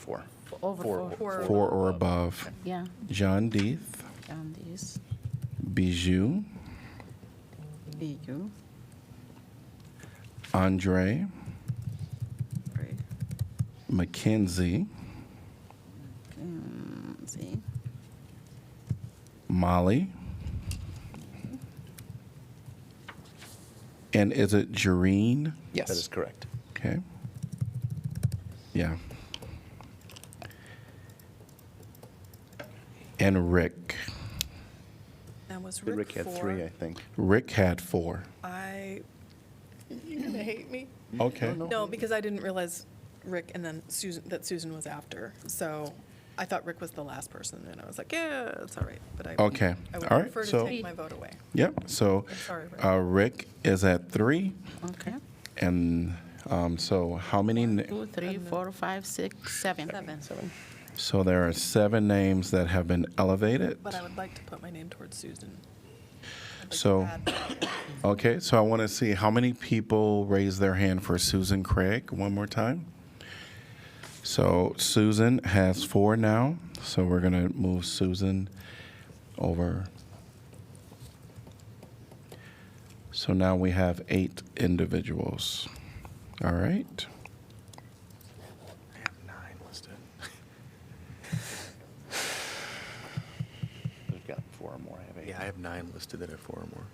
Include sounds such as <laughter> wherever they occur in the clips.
Four. Over four. Four. four or above. Yeah, John Deeth, down these. Bijou, EU, Andre, right, Mackenzie, um, see, Molly. And is it Jareen? Yes. That is correct. Okay. Yeah. And Rick. That was Rick, Rick had four. three, I think. Rick had four. I. <laughs> You're gonna hate me. Okay. Oh, No, because I didn't realize Rick and then Susan that Susan was after. So I thought Rick was the last person, and I was like, yeah, it's all right. But I. Okay. I would All right, prefer to so- take my vote away. Yep. So I'm sorry, Rick. uh, Rick is at three. okay. And um, so how many? n- Two, three, four, five, six, seven. Seven. So there are seven names that have been elevated. But I would like to put my name towards Susan. I'd like to So- add- Okay, so I want to see how many people raise their hand for Susan Craig one more time. So Susan has four now, so we're going to move Susan over. So now we have eight individuals. All right. I have nine listed. We've got four or more. I have eight. Yeah, I have nine listed that are four or more,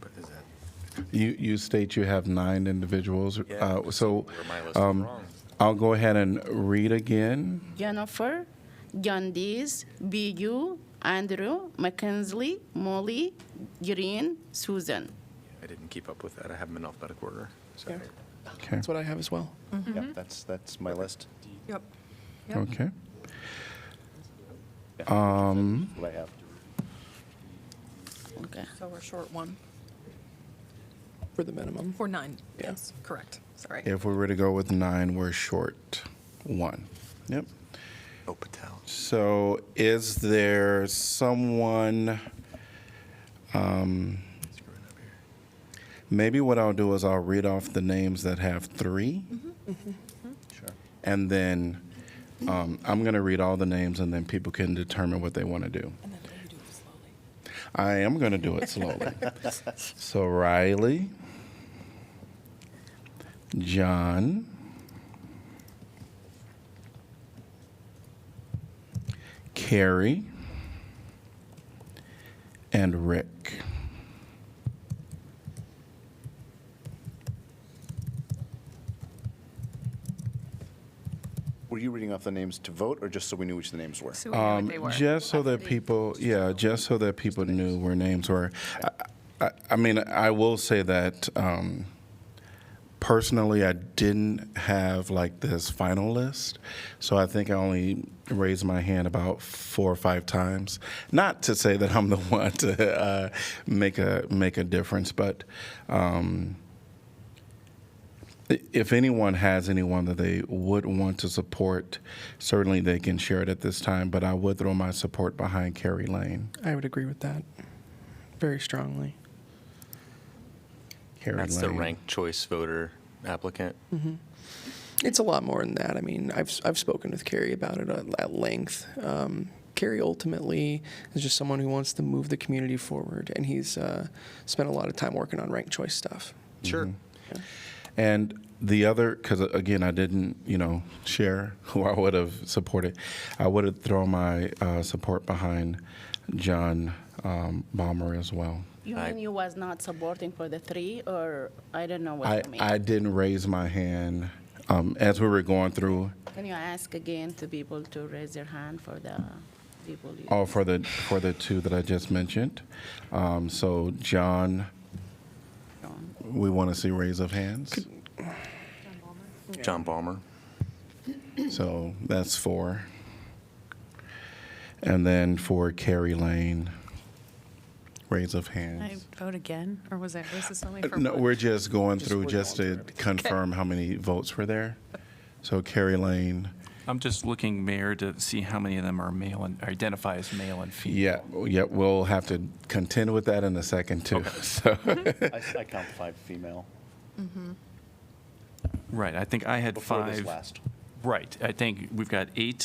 but is that? You, you state you have nine individuals. Uh, so Where my list is um, wrong. I'll go ahead and read again. Jennifer, John Dees, BU, Andrew, McKinley, Molly, Green, Susan. I didn't keep up with that. I have them in alphabetical order. Sorry. Okay. That's what I have as well. Yep, that's, that's my list. Yep. Yep. Okay. What I have. Okay. So we're short one For the minimum. or nine. Yeah. Yes, correct. Sorry. If we were to go with nine, we're short one. Yep. Oh, Patel. So is there someone, um, Screwing up here. maybe what I'll do is I'll read off the names that have 3 Sure. and then um, I'm going to read all the names, and then people can determine what they want to do. And then you do it slowly. I am going to do it slowly. so Riley, John, Carrie, and Rick. Were you reading off the names to vote or just so we knew which the names were? So we knew what they Um, were. Just so that people, yeah, just so that people knew where names were. I- I, I mean, I will say that um, personally, I didn't have like this final list, so I think I only raised my hand about four or five times. Not to say that I'm the <laughs> one to uh, make a make a difference, but. Um, if anyone has anyone that they would want to support, certainly they can share it at this time, but I would throw my support behind Carrie Lane. I would agree with that very strongly. Carrie That's the Lane. ranked choice voter applicant. It's a lot more than that. I mean, I've, I've spoken with Carrie about it at, at length. Um, Carrie ultimately is just someone who wants to move the community forward, and he's uh, spent a lot of time working on ranked choice stuff. Sure. And the other, because again, I didn't, you know, share <laughs> who I would have supported. I would have thrown my uh, support behind John um, Balmer as well. You I- mean you was not supporting for the three, or I don't know I, what you mean? I didn't raise my hand um, as we were going through. Can you ask again to people to raise their hand for the people? you- Oh, for the for the two that I just mentioned. Um, so John, we want to see raise of hands. <clears throat> John Balmer. So that's four. And then for Carrie Lane, raise of I hands. vote again, or was I, was this only for Uh, no, one? we're just going through we're just to confirm how many votes were there. So Carrie Lane, I'm just looking, Mayor, to see how many of them are male and identify as male and female. yeah, yeah, we'll have to contend with that in a second too. <laughs> So I I count five female. Right, I think I had Before five. this last. Right. I think we've got eight